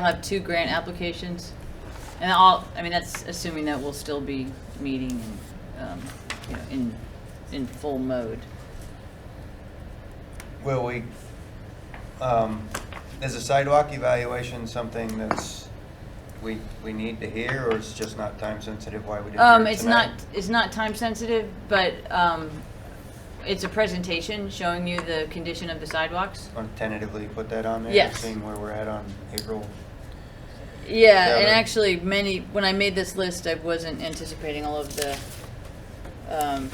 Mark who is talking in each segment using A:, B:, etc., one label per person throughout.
A: I'll have two grant applications, and all, I mean, that's assuming that we'll still be meeting, um, you know, in, in full mode.
B: Will we, um, is a sidewalk evaluation something that's, we, we need to hear, or it's just not time sensitive, why we didn't
A: Um,
B: hear it
A: it's not,
B: tonight?
A: it's not time sensitive, but, um, it's a presentation showing you the condition of the sidewalks.
B: Or Tentatively put that on there?
A: Yes.
B: Seeing where we're at on April,
A: Yeah, and
B: Yeah.
A: actually, many, when I made this list, I wasn't anticipating all of the um,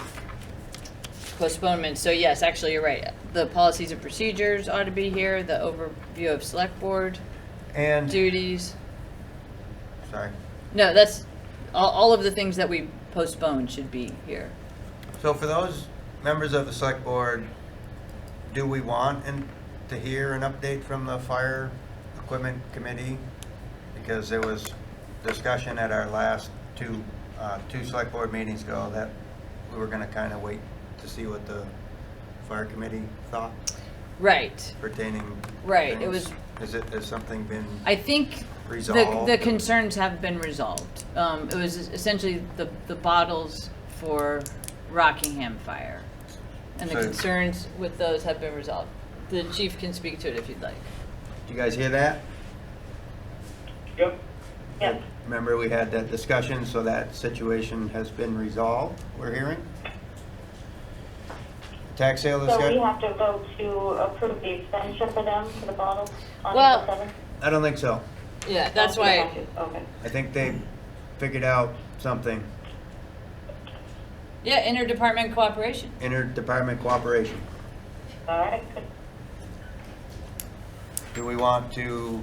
A: postponements. So yes, actually, you're right. The policies and procedures ought to be here, the overview of select board
B: and,
A: duties.
B: sorry.
A: No, that's, all, all of the things that we postponed should be here.
B: So for those members of the select board, do we want and to hear an update from the fire equipment committee? Because there was discussion at our last two, uh, two select board meetings ago that we were gonna kinda wait to see what the fire committee thought
A: Right.
B: pertaining.
A: Right, it
B: things.
A: was-
B: Is it, has something been,
A: I think the,
B: Resolved.
A: the concerns have been resolved. Um, it was essentially the, the bottles for Rockingham Fire. And the
B: So-
A: concerns with those have been resolved. The chief can speak to it if you'd like.
B: do you guys hear that?
C: Yep.
D: Yes,
B: Remember, we had that discussion, so that situation has been resolved, we're hearing? Tax sale is
D: so we
B: good?
D: have to go to approve the expenditure for them, for the bottles on
A: Well-
D: April 7th?
B: I don't think so.
A: Yeah, that's
D: Oh, we have
A: why,
D: to, Okay.
B: I think they figured out something,
A: yeah, interdepartment cooperation.
B: interdepartment cooperation.
D: All right, good.
B: Do we want to,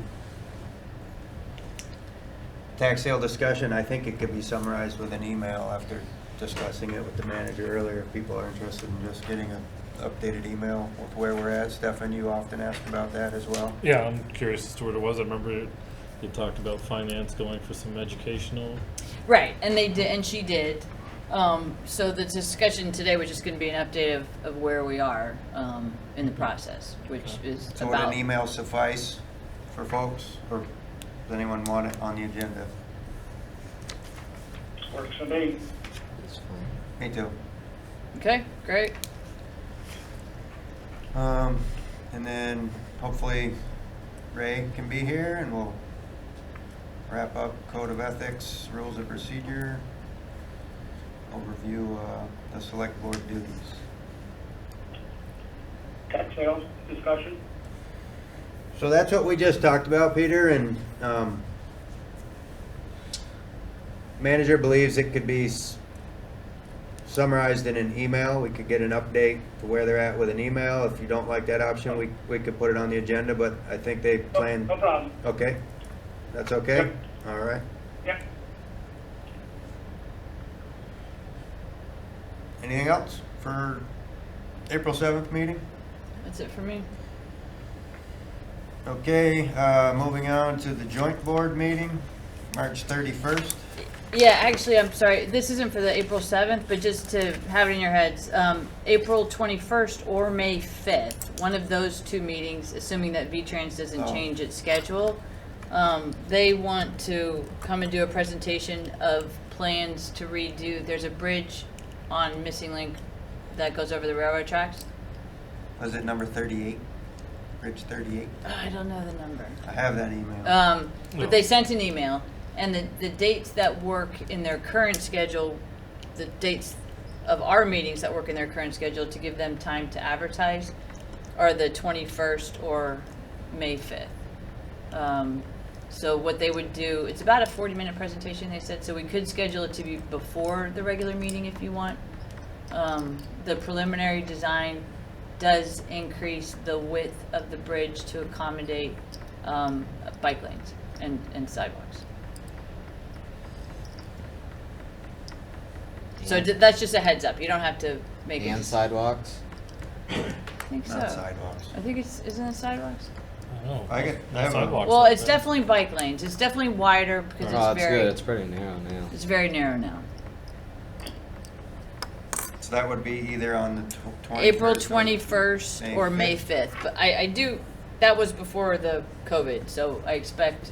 B: tax sale discussion, I think it could be summarized with an email after discussing it with the manager earlier. If people are interested in just getting an updated email with where we're at. Stefan, you often ask about that as well.
C: Yeah, I'm curious as to what it was. I remember you talked about finance going for some educational.
A: Right, and they did, and she did. Um, so the discussion today was just gonna be an update of, of where we are, um, in the process, which is
B: So would
A: about.
B: an email suffice for folks, or does anyone want it on the agenda?
C: Works for me.
B: Me too.
A: Okay, great.
B: Um, and then hopefully Ray can be here and we'll wrap up code of ethics, rules of procedure, overview, uh, the select board duties.
E: tax sales discussion?
B: So that's what we just talked about, Peter, and, um, manager believes it could be s- summarized in an email. We could get an update to where they're at with an email. If you don't like that option, we, we could put it on the agenda, but I think they
E: No-
B: plan.
E: No problem.
B: Okay, that's okay? All right.
E: Yep.
B: Anything else for April 7th meeting?
A: That's it for me.
B: Okay, uh, moving on to the joint board meeting, March 31st.
A: Yeah, actually, I'm sorry, this isn't for the April 7th, but just to have it in your heads, um, April 21st or May 5th, one of those two meetings, assuming that V-Trans doesn't
B: Oh.
A: change its schedule, um, they want to come and do a presentation of plans to redo, there's a bridge on Missing Link that goes over the railroad tracks.
B: Was it number 38? Bridge 38?
A: I don't know the number.
B: I have that email.
A: Um,
C: No.
A: but they sent an email, and the, the dates that work in their current schedule, the dates of our meetings that work in their current schedule to give them time to advertise are the twenty-first or May fifth. Um, so what they would do, it's about a forty-minute presentation, they said, so we could schedule it to be before the regular meeting if you want. Um, the preliminary design does increase the width of the bridge to accommodate, um, bike lanes and, and sidewalks. So
F: And-
A: th- that's just a heads up, you don't have to make it.
F: And sidewalks?
A: I think so.
B: Not sidewalks.
A: I think it's, isn't it sidewalks?
C: I don't know.
B: I get- I
C: No
B: have a-
C: sidewalks
A: Well,
C: out
A: it's
C: there.
A: definitely bike lanes, it's definitely wider because
F: Oh,
A: it's
F: it's good,
A: very,
F: it's pretty narrow now.
A: it's very narrow now.
B: So that would be either on the tw- 21st.
A: April
B: or-
A: twenty-first
B: May
A: or May
B: 5th.
A: fifth, but I, I do, that was before the COVID, so I expect